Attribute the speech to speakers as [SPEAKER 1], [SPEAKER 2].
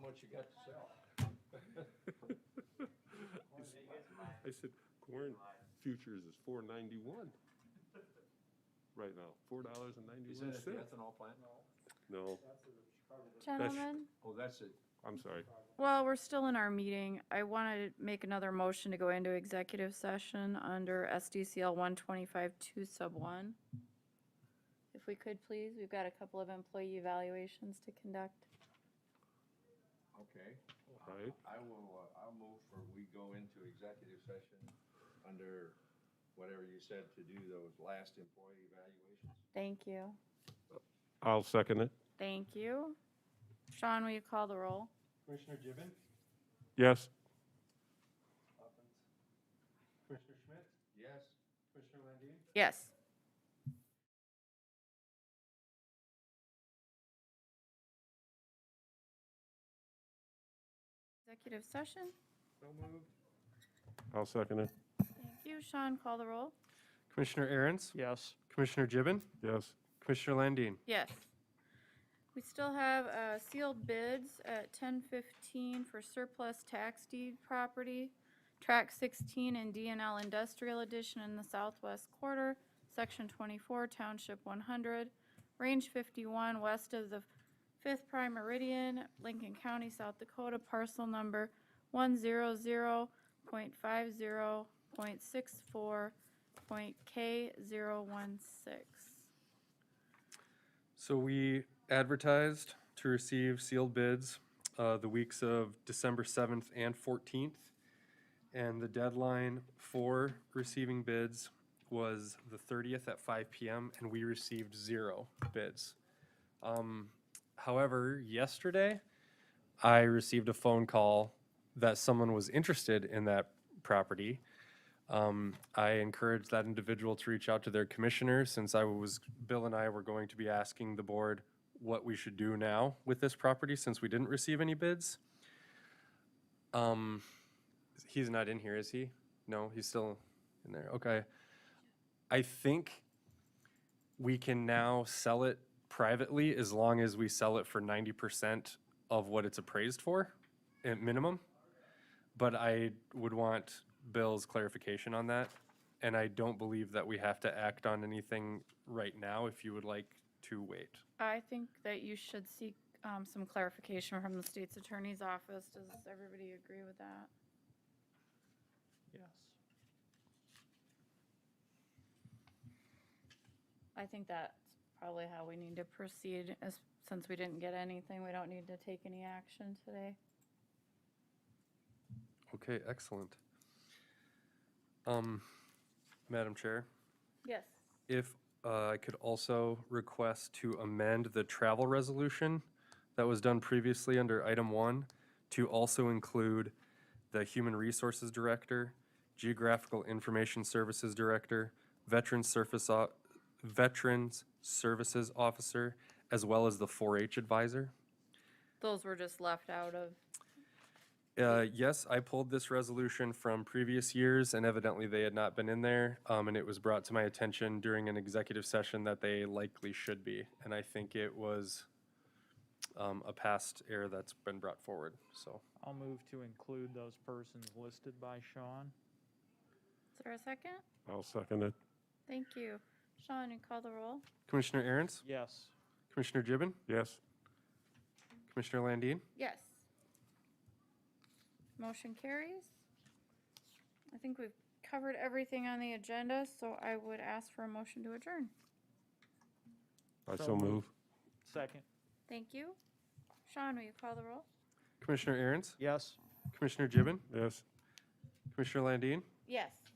[SPEAKER 1] what you got to sell.
[SPEAKER 2] I said, corn futures is four ninety-one right now, four dollars and
[SPEAKER 1] Is that
[SPEAKER 2] ninety-one
[SPEAKER 1] at the
[SPEAKER 2] cents.
[SPEAKER 1] ethanol plant?
[SPEAKER 2] No,
[SPEAKER 3] Gentlemen,
[SPEAKER 1] Oh, that's it.
[SPEAKER 2] I'm sorry.
[SPEAKER 3] while we're still in our meeting, I want to make another motion to go into executive session under SDCL 125-2 sub 1. If we could, please, we've got a couple of employee evaluations to conduct.
[SPEAKER 4] Okay,
[SPEAKER 2] Right?
[SPEAKER 4] I will, uh, I'll move for we go into executive session under whatever you said to do those last employee evaluations.
[SPEAKER 3] Thank you.
[SPEAKER 2] I'll second it.
[SPEAKER 3] Thank you. Sean, will you call the roll?
[SPEAKER 5] Commissioner Gibbon,
[SPEAKER 2] Yes.
[SPEAKER 5] Commissioner Schmidt,
[SPEAKER 4] Yes?
[SPEAKER 5] Commissioner Landine,
[SPEAKER 3] Yes. Executive session.
[SPEAKER 4] So moved?
[SPEAKER 2] I'll second it.
[SPEAKER 3] Thank you. Sean, call the roll.
[SPEAKER 5] Commissioner Aaron's,
[SPEAKER 6] Yes.
[SPEAKER 5] Commissioner Gibbon,
[SPEAKER 2] Yes.
[SPEAKER 5] Commissioner Landine.
[SPEAKER 3] Yes. We still have uh, sealed bids at 10:15 for surplus tax deed property, Track 16 in DNL Industrial Edition in the southwest quarter, Section 24, Township 100, Range 51, west of the 5th Prime Meridian, Lincoln County, South Dakota, parcel number 100.50.64.K016.
[SPEAKER 5] So we advertised to receive sealed bids uh, the weeks of December 7th and 14th. And the deadline for receiving bids was the 30th at 5 PM, and we received zero bids. Um, However, yesterday, I received a phone call that someone was interested in that property. Um, I encouraged that individual to reach out to their commissioner since I was, Bill and I were going to be asking the board what we should do now with this property since we didn't receive any bids. Um, he's not in here, is he? No, he's still in there. Okay. I think we can now sell it privately as long as we sell it for ninety percent of what it's appraised for at minimum. But I would want Bill's clarification on that. And I don't believe that we have to act on anything right now if you would like to wait.
[SPEAKER 3] I think that you should seek um, some clarification from the state's attorney's office. Does everybody agree with that?
[SPEAKER 6] Yes.
[SPEAKER 3] I think that's probably how we need to proceed, as, since we didn't get anything, we don't need to take any action today.
[SPEAKER 5] Okay, excellent. Um, Madam Chair,
[SPEAKER 3] Yes.
[SPEAKER 5] if uh, I could also request to amend the travel resolution that was done previously under item one to also include the Human Resources Director, Geographical Information Services Director, Veterans Surface, O- Veterans Services Officer, as well as the 4-H Advisor.
[SPEAKER 3] Those were just left out of,
[SPEAKER 5] Uh, Yes, I pulled this resolution from previous years, and evidently they had not been in there. um, And it was brought to my attention during an executive session that they likely should be. And I think it was um, a past error that's been brought forward, so.
[SPEAKER 6] I'll move to include those persons listed by Sean.
[SPEAKER 3] is there a second?
[SPEAKER 2] I'll second it.
[SPEAKER 3] Thank you. Sean, you call the roll?
[SPEAKER 5] Commissioner Aaron's,
[SPEAKER 6] Yes.
[SPEAKER 5] Commissioner Gibbon,
[SPEAKER 2] Yes.
[SPEAKER 5] Commissioner Landine.
[SPEAKER 3] Yes. Motion carries. I think we've covered everything on the agenda, so I would ask for a motion to adjourn.
[SPEAKER 2] I
[SPEAKER 6] So
[SPEAKER 2] so
[SPEAKER 6] moved.
[SPEAKER 2] move.
[SPEAKER 6] Second.
[SPEAKER 3] Thank you. Sean, will you call the roll?
[SPEAKER 5] Commissioner Aaron's,
[SPEAKER 6] Yes.
[SPEAKER 5] Commissioner Gibbon,
[SPEAKER 2] Yes.
[SPEAKER 5] Commissioner Landine,
[SPEAKER 3] Yes.